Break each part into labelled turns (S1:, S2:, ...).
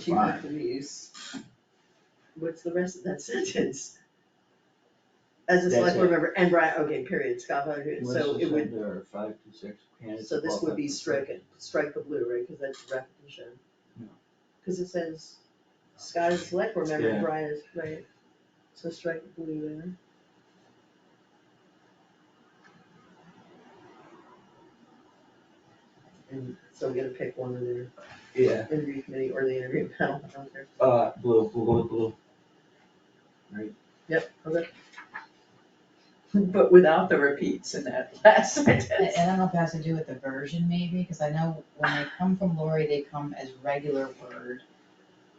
S1: cheaper for the use. What's the rest of that sentence? As a
S2: That's
S1: select board
S2: it.
S1: member, and Brian, okay, period, Scott Hunter, so it would,
S2: There five to six candidates.
S1: so this would be
S2: qualified for-
S1: stricken, strike the blue, right, cause that's repetition.
S2: No.
S1: Cause it says Scott is a select board member, and
S2: Yeah.
S1: Brian is, right, so strike the blue there. And so I'm gonna pick one of their
S2: Yeah,
S1: interview committee or the interview panel, I don't care.
S2: uh, blue, blue, blue, blue.
S1: Yep, okay. But without the repeats in that last
S3: And
S1: sentence.
S3: I don't know if it has to do with the version maybe, because I know when they come from Lori, they come as regular Word.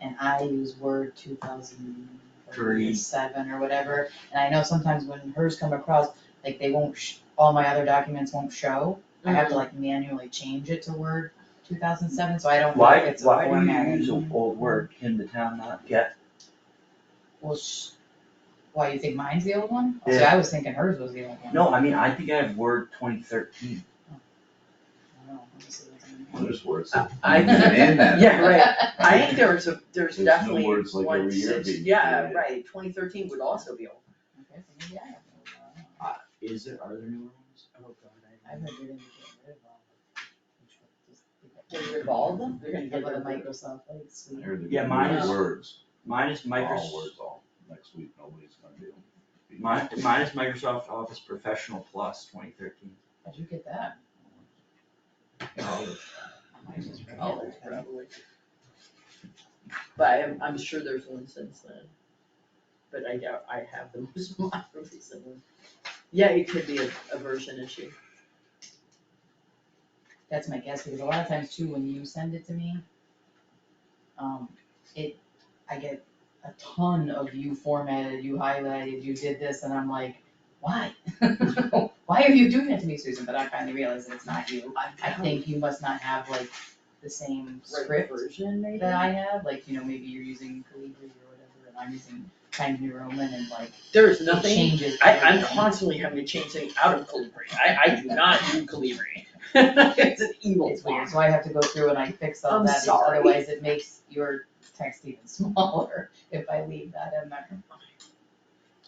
S3: And I use Word two thousand
S2: Three.
S3: seven or whatever, and I know sometimes when hers come across, like they won't, sh- all my other documents won't show. I have to like manually change it to Word two thousand seven, so I don't know
S2: Why,
S3: if it's a
S2: why
S3: formatting.
S2: do you use an old word, can the town not get?
S3: Well, sh- why, you think mine's the old one? See,
S2: Yeah.
S3: I was thinking hers was the old one.
S2: No, I mean, I think I have word twenty thirteen.
S3: I don't know. Let me see what's in there.
S4: Well, there's words.
S1: I-
S4: Man, that.
S1: Yeah, right, I think there was a, there's
S4: There's no
S1: definitely one
S4: words like every year
S1: six,
S4: being
S1: yeah,
S4: created.
S1: right, twenty thirteen would also be old.
S3: Okay, so maybe I have the old one, I don't know.
S2: Is there, are there new ones?
S1: Oh, God,
S3: I would get rid
S1: Get rid of
S3: of all of them.
S1: all of them? They're gonna
S3: Get rid of
S1: them.
S3: Microsoft, like,
S4: I
S3: sweet.
S4: heard they're
S2: Yeah,
S4: gonna
S2: mine
S4: do
S1: is-
S4: Words,
S2: Mine is
S4: all
S2: Microsoft,
S4: words, all, next week, nobody's gonna be able to.
S2: mine, mine is Microsoft Office Professional Plus twenty thirteen.
S3: How'd you get that?
S2: Oh,
S3: Mine's just right
S4: Oh,
S3: here.
S4: crap.
S1: But I'm, I'm sure there's one since then. But I doubt I have the most modern recent one. Yeah, it could be a, a version issue.
S3: That's my guess, because a lot of times too, when you send it to me, um, it, I get a ton of you formatted, you highlighted, you did this, and I'm like, why? Why are you doing that to me, Susan? But I finally realized that it's not you. I think you must not have like the same
S1: Right
S3: script
S1: version, maybe?
S3: that I have, like, you know, maybe you're using Calibri or whatever, and I'm using Times New Roman and like,
S1: There's
S3: it
S1: nothing
S3: changes.
S1: I, I'm
S3: everything.
S1: constantly having to change things out of Calibri, I, I do not do Calibri. It's an evil
S3: It's weird,
S1: box.
S3: so I have to go through and I fix all
S1: I'm
S3: that, because
S1: sorry.
S3: otherwise it makes your text even smaller if I leave that in there.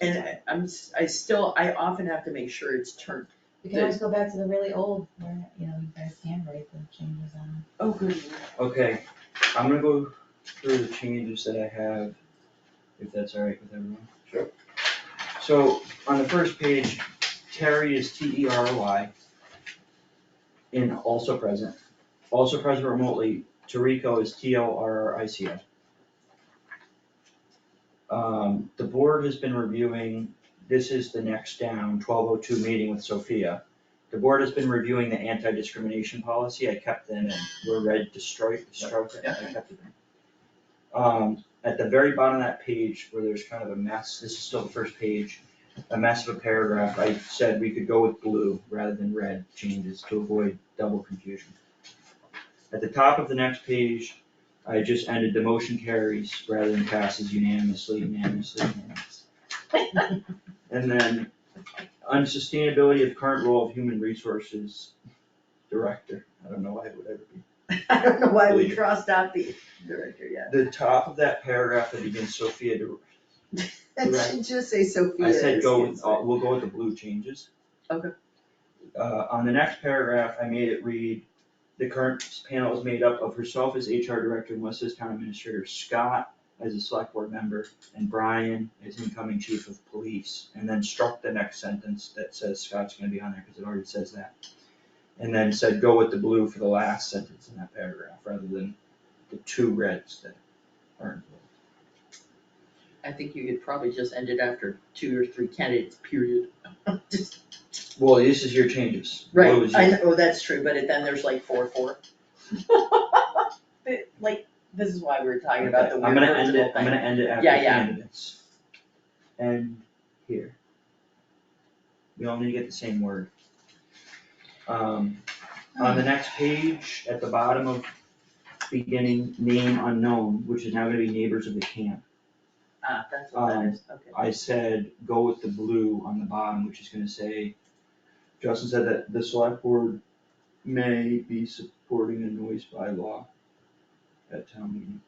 S1: And I, I'm, s- I still, I often have to make sure it's turned,
S3: We can always go back to the really old, where, you know, you guys can write the changes on.
S1: oh, good,
S2: Okay, I'm gonna go through the changes that I have, if that's all right with everyone.
S4: Sure.
S2: So, on the first page, Terry is T E R Y. And also present, also present remotely, Toriko is T O R R I C O. Um, the board has been reviewing, this is the next down, twelve oh two meeting with Sophia. The board has been reviewing the anti-discrimination policy, I kept them and were read to strike, stroke it, I kept it. Um, at the very bottom of that page where there's kind of a mess, this is still the first page, a mess of a paragraph, I said we could go with blue rather than red changes to avoid double confusion. At the top of the next page, I just ended the motion carries rather than passes unanimously, unanimously, unanimously. And then on sustainability of current role of human resources director, I don't know why it would ever be.
S1: I don't know why we
S2: Leader.
S1: crossed out the director yet.
S2: The top of that paragraph that begins Sophia, Dir-
S1: It
S2: Right.
S1: should just say Sophia.
S2: I said
S1: is
S2: go
S1: the
S2: with, uh, we'll go with the blue changes.
S1: Okay.
S2: Uh, on the next paragraph, I made it read, the current panel is made up of herself as HR director and Wes's town administrator, Scott as a select board member, and Brian as incoming chief of police, and then struck the next sentence that says Scott's gonna be on there, cause it already says that. And then said go with the blue for the last sentence in that paragraph, rather than the two reds that aren't blue.
S1: I think you could probably just end it after two or three candidates, period. Just,
S2: Well, this is your changes. Blue
S1: right,
S2: is
S1: I,
S2: your-
S1: know- oh, that's true, but it- then there's like four, four. But, Like, this is why we were talking about the
S2: Okay,
S1: weird
S2: I'm gonna end
S1: virtual
S2: it, I'm
S1: thing.
S2: gonna end it after
S1: Yeah, yeah.
S2: candidates. End here. We all need to get the same word. Um, on the next page, at the bottom of beginning, name unknown, which is now gonna be neighbors of the camp.
S1: Ah, that's what that
S2: Um,
S1: is, okay.
S2: I said, go with the blue on the bottom, which is gonna say, Justin said that the select board may be supporting a noise bylaw at town meeting.